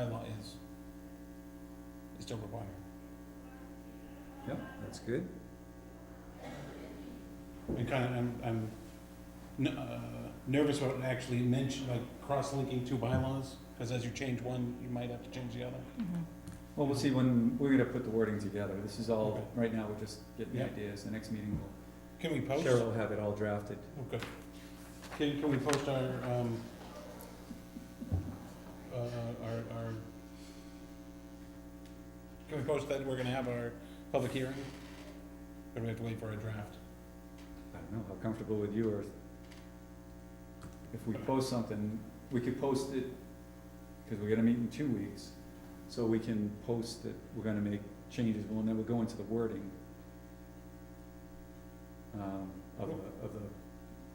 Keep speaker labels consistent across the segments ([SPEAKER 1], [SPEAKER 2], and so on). [SPEAKER 1] bylaw is, is to require.
[SPEAKER 2] Yep, that's good.
[SPEAKER 1] I'm kind of, I'm, I'm n- uh, nervous about actually mention, like, cross-linking two bylaws, because as you change one, you might have to change the other.
[SPEAKER 3] Mm-hmm.
[SPEAKER 2] Well, we'll see when, we're gonna put the wording together. This is all,
[SPEAKER 1] Okay.
[SPEAKER 2] right now, we're just getting the
[SPEAKER 1] Yeah.
[SPEAKER 2] ideas. The next meeting, we'll-
[SPEAKER 1] Can we post?
[SPEAKER 2] Cheryl will have it all drafted.
[SPEAKER 1] Okay. Can, can we post our, um, uh, our, our, can we post that we're gonna have our public hearing? Or do we have to wait for a draft?
[SPEAKER 2] I don't know, how comfortable with you are. If we post something, we could post it, cause we're gonna meet in two weeks, so we can post that we're gonna make changes, well, and then we'll go into the wording. Um, of the, of the,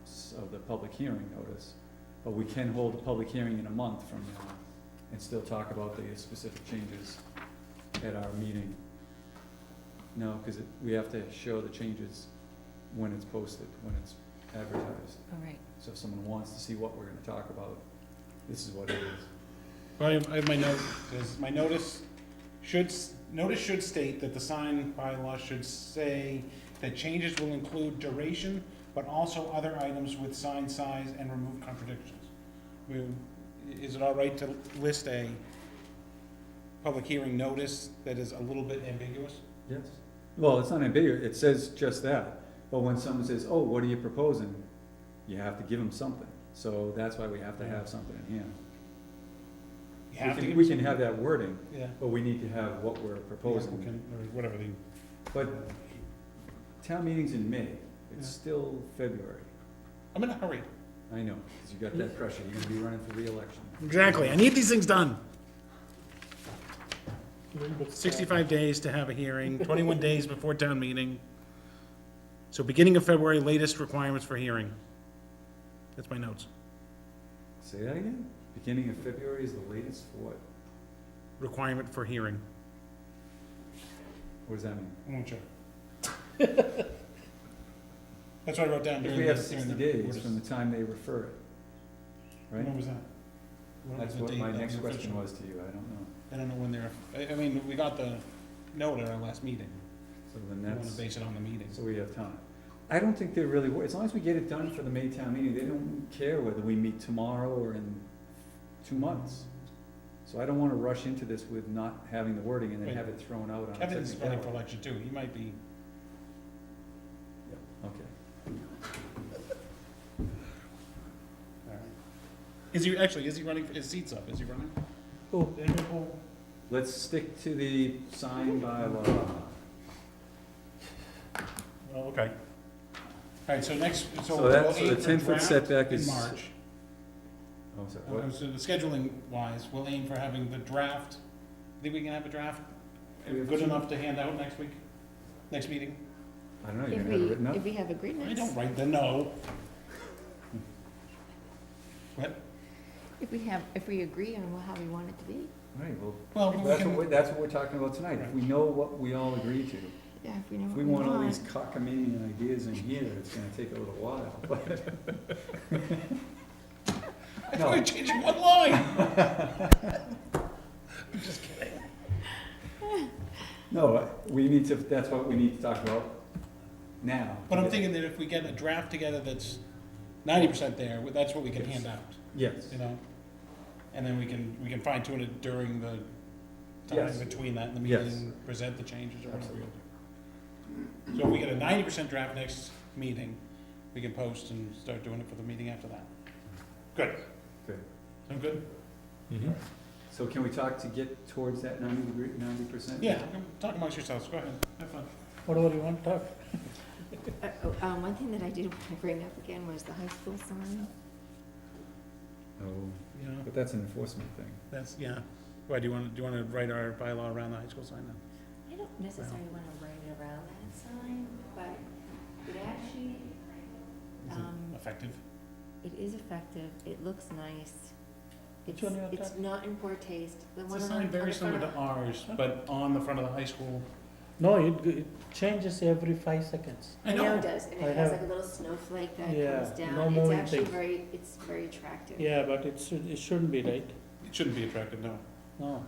[SPEAKER 2] s- of the public hearing notice, but we can hold a public hearing in a month from now and still talk about the specific changes at our meeting. No, cause it, we have to show the changes when it's posted, when it's advertised.
[SPEAKER 3] All right,
[SPEAKER 2] So if someone wants to see what we're gonna talk about, this is what it is.
[SPEAKER 1] Well, I have- I have my note, says, my notice should, s- notice should state that the sign bylaw should say that changes will include duration, but also other items with sign size and remove contradictions. Will- i- Is it all right to list a public hearing notice that is a little bit ambiguous?
[SPEAKER 2] Yes. Well, it's not ambiguous, it says just that, but when someone says, oh, what are you proposing? You have to give them something, so that's why we have to have something in hand.
[SPEAKER 1] You
[SPEAKER 2] We
[SPEAKER 1] have to
[SPEAKER 2] can,
[SPEAKER 1] give-
[SPEAKER 2] we can have that wording,
[SPEAKER 1] Yeah.
[SPEAKER 2] but we need to have what we're proposing.
[SPEAKER 1] Applicant Or whatever the.
[SPEAKER 2] But town meeting's in May,
[SPEAKER 1] Yeah.
[SPEAKER 2] it's still February,
[SPEAKER 1] I'm in a hurry.
[SPEAKER 2] I know, cause you got that pressure, you're gonna be running for reelection.
[SPEAKER 1] Exactly, I need these things done. Sixty-five days to have a hearing, twenty-one days before town meeting. So beginning of February, latest requirements for hearing. That's my notes.
[SPEAKER 2] Say that again? Beginning of February is the latest for what?
[SPEAKER 1] Requirement for hearing.
[SPEAKER 2] What does that mean?
[SPEAKER 1] That's what I wrote down
[SPEAKER 2] If
[SPEAKER 1] during the.
[SPEAKER 2] we have
[SPEAKER 1] during
[SPEAKER 2] sixty
[SPEAKER 1] the
[SPEAKER 2] days
[SPEAKER 1] orders.
[SPEAKER 2] from the time they refer it,
[SPEAKER 1] When
[SPEAKER 2] right?
[SPEAKER 1] was that? When
[SPEAKER 2] That's
[SPEAKER 1] was Mm-hmm. the
[SPEAKER 2] what
[SPEAKER 1] date
[SPEAKER 2] my
[SPEAKER 1] that
[SPEAKER 2] next question
[SPEAKER 1] official?
[SPEAKER 2] was to you, I don't know.
[SPEAKER 1] I don't know when they're, I, I mean, we got the note at our last meeting.
[SPEAKER 2] So then
[SPEAKER 1] We wanna
[SPEAKER 2] that's,
[SPEAKER 1] base it on the meeting.
[SPEAKER 2] so we have time. I don't think they really, wor- as long as we get it done for the May town meeting, they don't care whether we meet tomorrow or in two months. So I don't wanna rush into this with not having the wording and then have it thrown out on a
[SPEAKER 1] Kevin's running for
[SPEAKER 2] technicality.
[SPEAKER 1] election too, he might be.
[SPEAKER 2] Okay.
[SPEAKER 1] Is he, actually, is he running, his seat's up, is he running?
[SPEAKER 2] Let's stick to the sign bylaw. Oh,
[SPEAKER 1] Well, Oh, okay. All right, so next, so.
[SPEAKER 2] So
[SPEAKER 1] we'll
[SPEAKER 2] that's- so
[SPEAKER 1] aim
[SPEAKER 2] the
[SPEAKER 1] for
[SPEAKER 2] 10 foot
[SPEAKER 1] draft
[SPEAKER 2] setback
[SPEAKER 1] in
[SPEAKER 2] is-
[SPEAKER 1] March,
[SPEAKER 2] Oh, I'm sorry,
[SPEAKER 1] Uh,
[SPEAKER 2] what?
[SPEAKER 1] so the scheduling wise, we'll aim for having the draft, I think we can have a draft uh,
[SPEAKER 2] We have
[SPEAKER 1] good
[SPEAKER 2] two-
[SPEAKER 1] enough to hand out next week, next meeting?
[SPEAKER 2] I don't know, you're gonna
[SPEAKER 3] if
[SPEAKER 2] have it
[SPEAKER 3] we,
[SPEAKER 2] written up?
[SPEAKER 3] if we have
[SPEAKER 1] I
[SPEAKER 3] agreements,
[SPEAKER 1] don't write the no. What,
[SPEAKER 3] if we have, if we agree on how we want it to be,
[SPEAKER 2] All right, well,
[SPEAKER 1] well,
[SPEAKER 2] Well,
[SPEAKER 1] we
[SPEAKER 2] That's what,
[SPEAKER 1] can,
[SPEAKER 2] we're- that's what we're talking about tonight, if we know what we all agree to.
[SPEAKER 3] yeah, if we know
[SPEAKER 2] If
[SPEAKER 3] what
[SPEAKER 2] we
[SPEAKER 3] we
[SPEAKER 2] want
[SPEAKER 3] want.
[SPEAKER 2] all these cockamamie ideas in here, it's gonna take a little while, but.
[SPEAKER 1] I thought
[SPEAKER 2] No,
[SPEAKER 1] we changed one line.
[SPEAKER 2] no, we need to, that's what we need to talk about now.
[SPEAKER 1] But I'm thinking that if we get a draft together that's ninety percent there, that's what we can hand out.
[SPEAKER 2] Yes,
[SPEAKER 1] you know? And then we can, we can fine tune it during the time
[SPEAKER 2] Yes.
[SPEAKER 1] between that and the
[SPEAKER 2] Yes.
[SPEAKER 1] meeting, present the changes or whatever we'll do. So if we get a ninety percent draft next meeting, we can post and start doing it for the meeting after that. Good.
[SPEAKER 2] Good.
[SPEAKER 1] Sound good?
[SPEAKER 2] so can we talk to get towards that ninety degree, ninety percent?
[SPEAKER 1] Yeah, talk amongst yourselves, go ahead, have fun.
[SPEAKER 4] What all do you want to talk?
[SPEAKER 3] Uh, oh, Um, one thing that I did want to bring up again was the high school sign.
[SPEAKER 2] Oh,
[SPEAKER 1] You know,
[SPEAKER 2] but that's an enforcement thing.
[SPEAKER 1] that's, yeah. Why, do you wanna, do you wanna write our bylaw around the high school sign then?
[SPEAKER 3] I don't necessarily want to write it around that sign, but it actually,
[SPEAKER 1] Is
[SPEAKER 3] um,
[SPEAKER 1] it effective?
[SPEAKER 3] it is effective, it looks nice.
[SPEAKER 4] Which
[SPEAKER 3] It's,
[SPEAKER 4] one you want to
[SPEAKER 3] it's
[SPEAKER 4] talk?
[SPEAKER 3] not in poor taste, the
[SPEAKER 1] It's
[SPEAKER 3] one
[SPEAKER 1] a
[SPEAKER 3] on,
[SPEAKER 1] sign
[SPEAKER 3] on the
[SPEAKER 1] very
[SPEAKER 3] front
[SPEAKER 1] similar to
[SPEAKER 3] of-
[SPEAKER 1] ours, but on the front of the high school.
[SPEAKER 4] No, it, it changes every five seconds.
[SPEAKER 3] I know it does, and
[SPEAKER 4] I
[SPEAKER 3] it has
[SPEAKER 4] have-
[SPEAKER 3] like a little snowflake that
[SPEAKER 4] Yeah,
[SPEAKER 3] comes down,
[SPEAKER 4] no
[SPEAKER 3] it's
[SPEAKER 4] moving
[SPEAKER 3] actually
[SPEAKER 4] things.
[SPEAKER 3] very, it's very attractive.
[SPEAKER 4] Yeah, but it should, it shouldn't be, right?
[SPEAKER 1] It shouldn't be attractive, no.
[SPEAKER 4] no.